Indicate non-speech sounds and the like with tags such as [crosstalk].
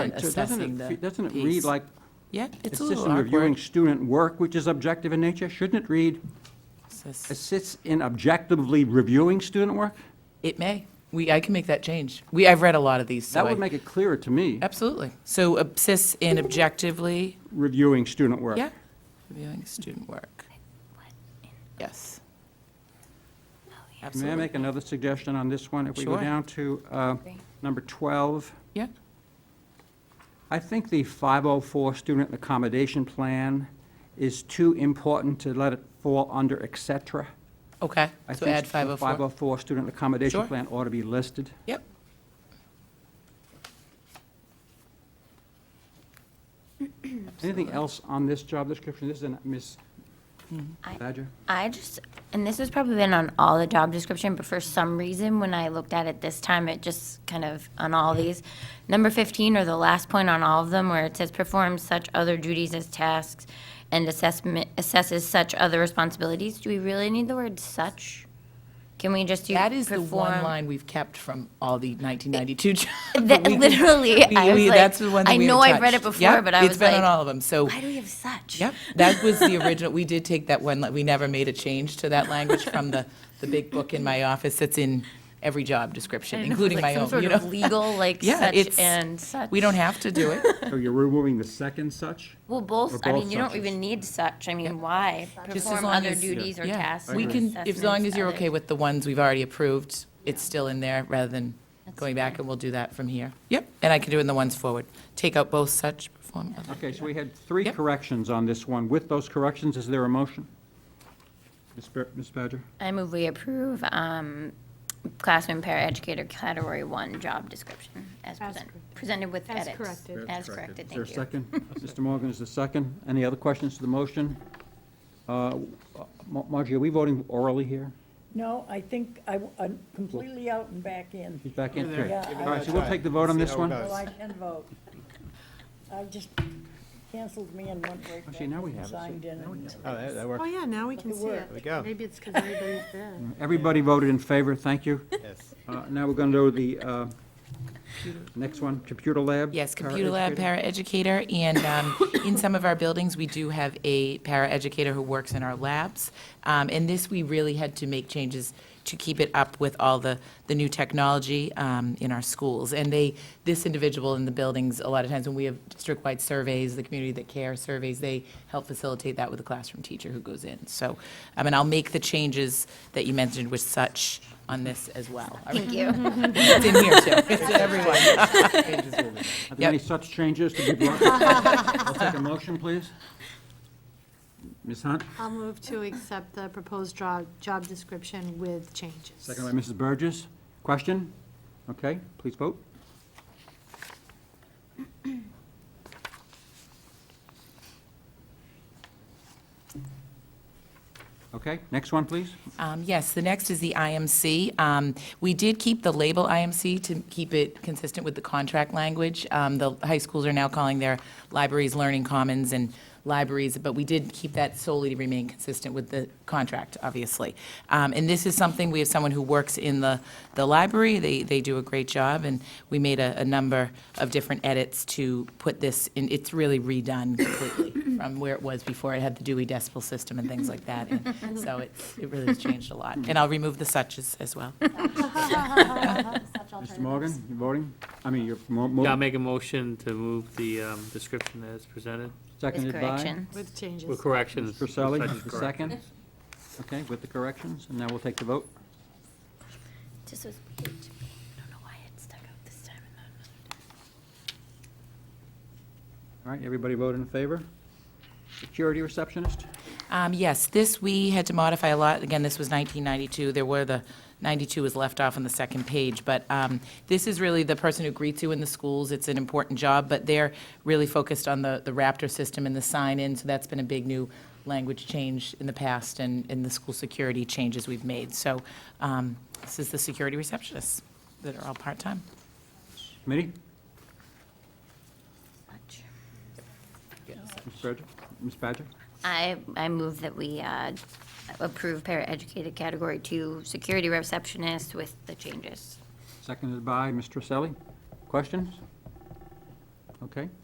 Right, so doesn't it assessing the fe- Doesn't it read piece. like Yeah, it's a assists little in reviewing awkward. student work, which is objective in nature? Shouldn't it read Assess- assists in objectively reviewing student work? It may. We, I can make that change. We, I've read a lot of these, so That would I, make it clearer to me, absolutely. So abscess in objectively, reviewing student work. yeah, reviewing student work. Yes. May I Absolutely, make another suggestion on this one? If we go Sure. down to uh, number 12, yeah. I think the 504 student accommodation plan is too important to let it fall under et cetera. Okay, I so think oh add the 504. 504 student accommodation Sure. plan ought to be listed. Yep. Anything else on this job description? This is in Ms. I- Badger? I just, and this has probably been on all the job description, but for some reason, when I looked at it this time, it just kind of, on all these, number 15 or the last point on all of them, where it says perform such other duties as tasks and assessment, assesses such other responsibilities, do we really need the word such? Can we just do perform? That is the one line we've kept from all the 1992 jobs. [laughs] That- We- literally, we- I was we- like, that's the one that I we know haven't I've read touched. it before, Yep, but I was It's been on like, all of them, so. Why do we have such? Yep, that was the original, we did take that one, we never made a change to that language from the, the big book in my office that's in every job I description, don't know, including like my some own, sort you of know? Legal, like Yeah, such it's- and such. [laughs] We don't have to [laughs] do it. So you're removing the second such? Well, Or both, I both mean, you don't such. even need such, I mean, why? Just as Perform long other as- duties or Yeah, tasks. We or can, as long as assessments you're other- okay with the ones we've already approved, it's still in there rather than going back and we'll do that from here. Yep, and I can do it in the ones forward. Take out both such perform. other- Okay, so we had three Yep. corrections on this one. With those corrections, is there a motion? Ms. Ba- Ms. Badger? I move we approve um, classroom paraeducator category one job description as presented, presented with As edits. corrected. As corrected, thank you. Is there a second? Mr. Morgan is the second. Any other questions to the motion? Uh, Mar- Margie, are we voting orally here? No, I think I- I'm completely out and back in. He's back in. there. Okay. Give it All right, so another we'll try. take the vote on See this how it one. goes. So I can vote. I just canceled me and went right Oh, back. see, now we and have it. See, Signed in. and- Oh, that, that Oh, works, yeah, now we can It see worked. it. There we go. Maybe it's because everybody's [laughs] there. Everybody voted in favor, thank you. yes. Uh, Now we're going to do the uh, next one, computer lab. Yes, computer lab, paraeducator. paraeducator, and um, in some of our buildings, we do have a paraeducator who works in our labs. Um, And this, we really had to make changes to keep it up with all the, the new technology um, in our schools. And they, this individual in the buildings, a lot of times when we have district-wide surveys, the community that care surveys, they help facilitate that with the classroom teacher who goes in. So, I mean, I'll make the changes that you mentioned with such on this as well. Thank you. It's in here, too. It's in everyone. Are there any such changes to be brought? I'll take a motion, please. Ms. Hunt, I'll move to accept the proposed job, job description with changes. [laughs] second by Mrs. Burgess. Question? Okay, please vote. Okay, next one, please. Um, Yes, the next is the IMC. Um, We did keep the label IMC to keep it consistent with the contract language. Um, The high schools are now calling their libraries Learning Commons and libraries, but we did keep that solely to remain consistent with the contract, obviously. Um, And this is something, we have someone who works in the, the library, they, they do a great job, and we made a, a number of different edits to put this, in. it's really redone completely from where it was before. It had the Dewey Decimal System and things like that, and so it's, it really has changed a lot. And I'll remove the suches as well. Mr. Morgan, you voting? I mean, you're mo- Yeah, I'll mo- make a motion to move the um, description as presented seconded by? With corrections. With changes. with corrections. Mr. Selly, such the corrections. second. Okay, with the corrections, and now we'll take the vote. This was weird to me. I don't know why it stuck out this time and not another time. All right, everybody vote in favor? Security receptionist? Um, Yes, this, we had to modify a lot. Again, this was 1992. There were the, 92 was left off on the second page, but um, this is really the person who greets you in the schools. It's an important job, but they're really focused on the the Raptor system and the sign-in, so that's been a big new language change in the past and in the school security changes we've made. So um, this is the security receptionists that are all part-time. Committee? Much. Ms. Badger? Ms. Badger? I, I move that we uh, approve paraeducator category two security receptionist with the changes. Seconded by Mr. Selly. Questions? okay?